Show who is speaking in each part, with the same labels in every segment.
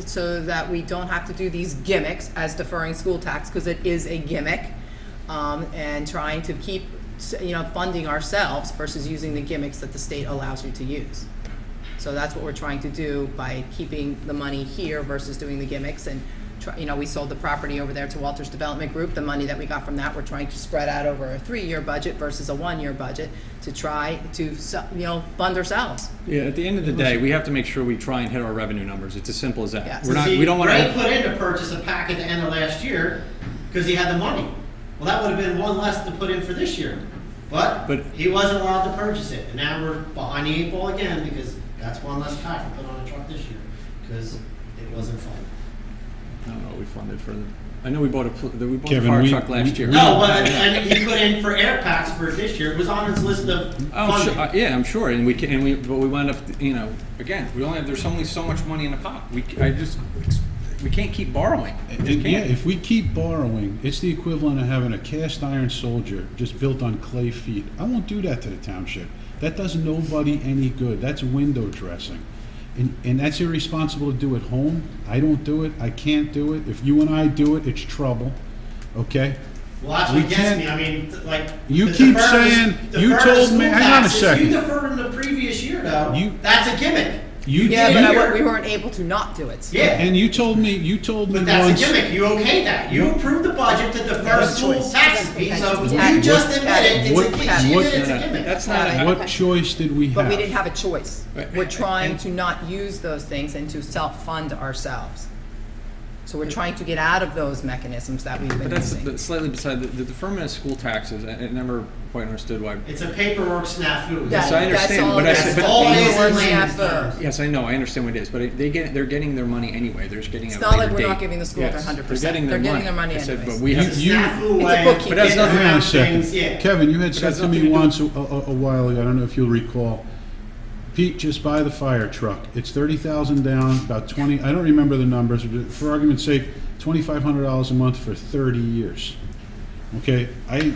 Speaker 1: so that we don't have to do these gimmicks as deferring school tax, because it is a gimmick, um, and trying to keep, you know, funding ourselves versus using the gimmicks that the state allows you to use. So that's what we're trying to do by keeping the money here versus doing the gimmicks and, try- you know, we sold the property over there to Walters Development Group. The money that we got from that, we're trying to spread out over a three-year budget versus a one-year budget to try to, so- you know, fund ourselves.
Speaker 2: Yeah, at the end of the day, we have to make sure we try and hit our revenue numbers. It's as simple as that.
Speaker 1: Yes.
Speaker 2: We're not,
Speaker 3: See,
Speaker 2: we don't want
Speaker 3: Ray
Speaker 2: to.
Speaker 3: put in to purchase a pack at the end of last year because he had the money. Well, that would have been one less to put in for this year. But,
Speaker 2: But-
Speaker 3: he wasn't allowed to purchase it, and now we're behind the eight ball again because that's one less pack to put on a truck this year because it wasn't fun.
Speaker 2: I don't know what we funded for the. I know we bought a pl- we bought
Speaker 4: Kevin,
Speaker 2: a fire
Speaker 4: we-
Speaker 2: truck last
Speaker 4: we-
Speaker 2: year.
Speaker 3: No, well, and, and he put in for air packs for this year. It was on his list of
Speaker 2: Oh,
Speaker 3: funding.
Speaker 2: sure, uh, yeah, I'm sure, and we can, and we, but we wound up, you know, again, we only have, there's only so much money in the pot. We, c- I just, we can't keep borrowing.
Speaker 4: And-
Speaker 2: We
Speaker 4: yeah,
Speaker 2: can't.
Speaker 4: if we keep borrowing, it's the equivalent of having a cast iron soldier just built on clay feet. I won't do that to the township. That does nobody any good. That's window dressing. And, and that's irresponsible to do at home. I don't do it. I can't do it. If you and I do it, it's trouble. Okay?
Speaker 3: Well, that's
Speaker 4: We
Speaker 3: what gets
Speaker 4: can't-
Speaker 3: me. I mean, th- like
Speaker 4: You
Speaker 3: the
Speaker 4: keep
Speaker 3: deferred-
Speaker 4: saying- you
Speaker 3: deferred
Speaker 4: told
Speaker 3: school
Speaker 4: me- hang on a
Speaker 3: taxes,
Speaker 4: second.
Speaker 3: You deferred them the previous year, though.
Speaker 4: You-
Speaker 3: that's a gimmick.
Speaker 4: You,
Speaker 1: Yeah, but
Speaker 4: you-
Speaker 1: I wa- we weren't able to not do it.
Speaker 3: Yeah,
Speaker 4: and you told me you told me
Speaker 3: But that's
Speaker 4: once
Speaker 3: a gimmick, you okay that, you approved the budget to defer
Speaker 1: That's a
Speaker 3: school
Speaker 1: choice.
Speaker 3: taxes,
Speaker 1: That's
Speaker 3: Pete,
Speaker 1: okay.
Speaker 3: so
Speaker 1: What-
Speaker 3: you just
Speaker 1: what-
Speaker 3: admitted, it's a,
Speaker 4: what-
Speaker 3: gi- she
Speaker 4: what-
Speaker 3: admitted it's
Speaker 2: No,
Speaker 3: a
Speaker 2: no,
Speaker 3: gimmick.
Speaker 2: That's not, a-
Speaker 4: what choice did we have?
Speaker 1: But we didn't have a choice.
Speaker 2: Right.
Speaker 1: We're trying to not use those things and to self-fund ourselves. So we're trying to get out of those mechanisms that we've
Speaker 2: but
Speaker 1: been
Speaker 2: that's
Speaker 1: using.
Speaker 2: the- slightly beside, the the deferment of school taxes, I, I never quite understood why.
Speaker 3: It's a paperwork
Speaker 1: Yeah,
Speaker 3: snafu.
Speaker 2: Yes, I
Speaker 1: that's
Speaker 2: understand,
Speaker 1: all
Speaker 2: but
Speaker 1: it
Speaker 2: I
Speaker 1: is.
Speaker 2: said- but-
Speaker 3: Always in layman's
Speaker 1: Paperwork,
Speaker 3: terms.
Speaker 1: snafu.
Speaker 2: Yes, I know, I understand what it is, but it- they get, they're getting their money anyway, they're just getting it
Speaker 1: It's
Speaker 2: at a
Speaker 1: not
Speaker 2: later
Speaker 1: like we're not
Speaker 2: date.
Speaker 1: giving the school their
Speaker 2: Yes,
Speaker 1: 100%.
Speaker 2: getting
Speaker 1: They're getting their money
Speaker 2: I said,
Speaker 1: anyways.
Speaker 2: but we have,
Speaker 3: It's a
Speaker 4: You-
Speaker 3: snafu
Speaker 1: It's a
Speaker 3: way.
Speaker 1: bookkeeping.
Speaker 2: But that's nothing-
Speaker 4: Hang on a second.
Speaker 3: Things, yeah.
Speaker 4: Kevin, you had
Speaker 2: But
Speaker 4: said
Speaker 2: that's
Speaker 4: to me
Speaker 2: nothing to do-
Speaker 4: once a, a, a while ago, I don't know if you'll recall, Pete, just buy the fire truck. It's thirty thousand down, about twenty, I don't remember the numbers, but for argument's sake, twenty-five hundred dollars a month for thirty years. Okay, I, I-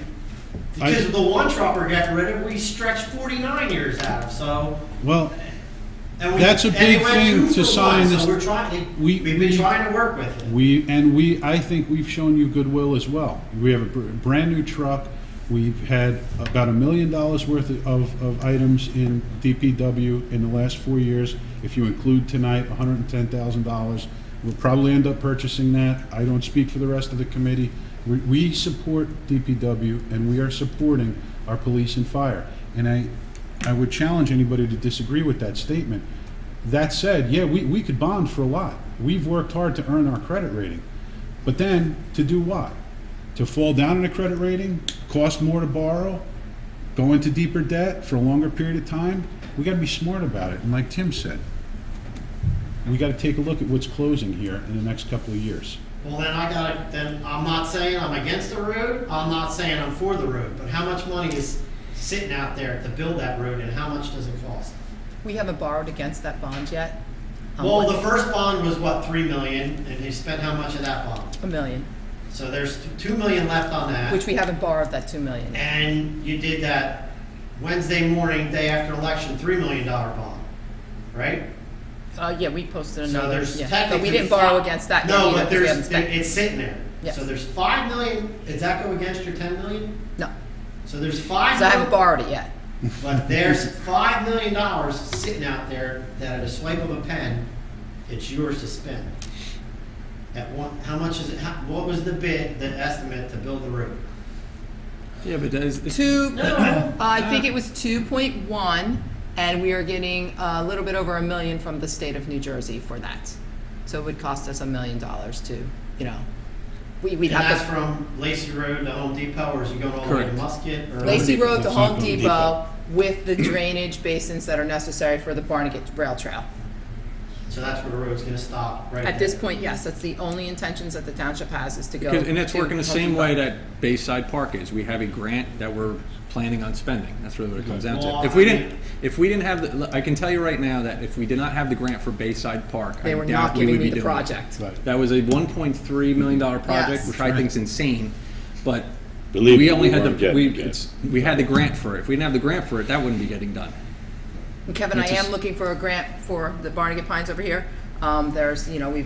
Speaker 3: Because of the one truck we're getting rid of, we stretched forty-nine years out of, so.
Speaker 4: well,
Speaker 3: and we-
Speaker 4: That's a
Speaker 3: and
Speaker 4: big
Speaker 3: it went
Speaker 4: thing
Speaker 3: through
Speaker 4: to
Speaker 3: for one,
Speaker 4: sign this-
Speaker 3: So we're trying,
Speaker 4: we-
Speaker 3: we've been
Speaker 4: we-
Speaker 3: trying to work with it.
Speaker 4: We, and we, I think we've shown you goodwill as well. We have a br- brand-new truck. We've had about a million dollars worth of, of items in DPW in the last four years. If you include tonight, hundred and ten thousand dollars. We'll probably end up purchasing that. I don't speak for the rest of the committee. We, we support DPW and we are supporting our police and fire. And I, I would challenge anybody to disagree with that statement. That said, yeah, we, we could bond for a lot. We've worked hard to earn our credit rating. But then, to do what? To fall down in a credit rating, cost more to borrow, go into deeper debt for a longer period of time? We gotta be smart about it, and like Tim said, we gotta take a look at what's closing here in the next couple of years.
Speaker 3: Well, then I gotta, then I'm not saying I'm against the road, I'm not saying I'm for the road, but how much money is sitting out there to build that road and how much does it cost?
Speaker 1: We haven't borrowed against that bond yet. Um,
Speaker 3: Well,
Speaker 1: what-
Speaker 3: the first bond was what, three million, and they spent how much of that bond?
Speaker 1: A million,
Speaker 3: So there's two million left on
Speaker 1: which
Speaker 3: that.
Speaker 1: we haven't borrowed that 2 million. yet.
Speaker 3: And you did that Wednesday morning, day after election, three million dollar bond, right?
Speaker 1: Uh, yeah, we posted
Speaker 3: So
Speaker 1: another,
Speaker 3: there's
Speaker 1: yeah,
Speaker 3: technically.
Speaker 1: but we didn't borrow
Speaker 3: fi-
Speaker 1: against that yet
Speaker 3: No,
Speaker 1: either,
Speaker 3: but
Speaker 1: 'cause we haven't
Speaker 3: there's,
Speaker 1: spent.
Speaker 3: it's sitting there.
Speaker 1: Yes.
Speaker 3: So there's five million, does that go against your ten million?
Speaker 1: No,
Speaker 3: So there's five.
Speaker 1: so I haven't
Speaker 3: million-
Speaker 1: borrowed it yet.
Speaker 3: But there's five million dollars sitting out there that at a swipe of a pen, it's yours to spend. At one, how much is it, how, what was the bid, the estimate to build the road?
Speaker 2: yeah, but that is, it's-
Speaker 1: Two,
Speaker 3: No.
Speaker 1: Uh, I think it was two point one, and we are getting a little bit over a million from the state of New Jersey for that. So it would cost us a million dollars to, you know, we, we'd
Speaker 3: And that's
Speaker 1: have
Speaker 3: from Lacey Road to Home Depot, or is it going all the way to
Speaker 2: Correct.
Speaker 3: Musket? or-
Speaker 1: to, Lacey Road to
Speaker 4: That's not
Speaker 1: Home
Speaker 4: Home
Speaker 1: Depot with the drainage basins that are necessary for the Barnegat Rail Trail.
Speaker 3: So that's where the road's gonna stop, right?
Speaker 1: At this
Speaker 3: there.
Speaker 1: point, yes, that's the only intentions that the township has is to go.
Speaker 2: Because- And it's
Speaker 1: to
Speaker 2: working the
Speaker 1: Home
Speaker 2: same
Speaker 1: Depot.
Speaker 2: way that Bayside Park is. We have a grant that we're planning on spending. That's really what it comes down
Speaker 3: Well,
Speaker 2: to. If we
Speaker 3: I mean-
Speaker 2: didn't, if we didn't have, the, look, I can tell you right now that if we did not have the grant for Bayside Park,
Speaker 1: They
Speaker 2: I
Speaker 1: were
Speaker 2: doubt
Speaker 1: not
Speaker 2: we
Speaker 1: giving
Speaker 2: would
Speaker 1: me
Speaker 2: be
Speaker 1: the
Speaker 2: doing it.
Speaker 1: project.
Speaker 4: Right.
Speaker 2: That was a one point three million dollar project,
Speaker 1: Yes.
Speaker 2: which I think is insane, but
Speaker 5: Believe
Speaker 2: we
Speaker 5: me,
Speaker 2: only
Speaker 5: we
Speaker 2: had
Speaker 5: weren't
Speaker 2: the,
Speaker 5: getting
Speaker 2: we,
Speaker 5: it yet.
Speaker 2: it's, we had the grant for it. If we didn't have the grant for it, that wouldn't be getting done.
Speaker 1: And Kevin, I
Speaker 2: Which is-
Speaker 1: am looking for a grant for the Barnegat Pines over here. Um, there's, you know, we've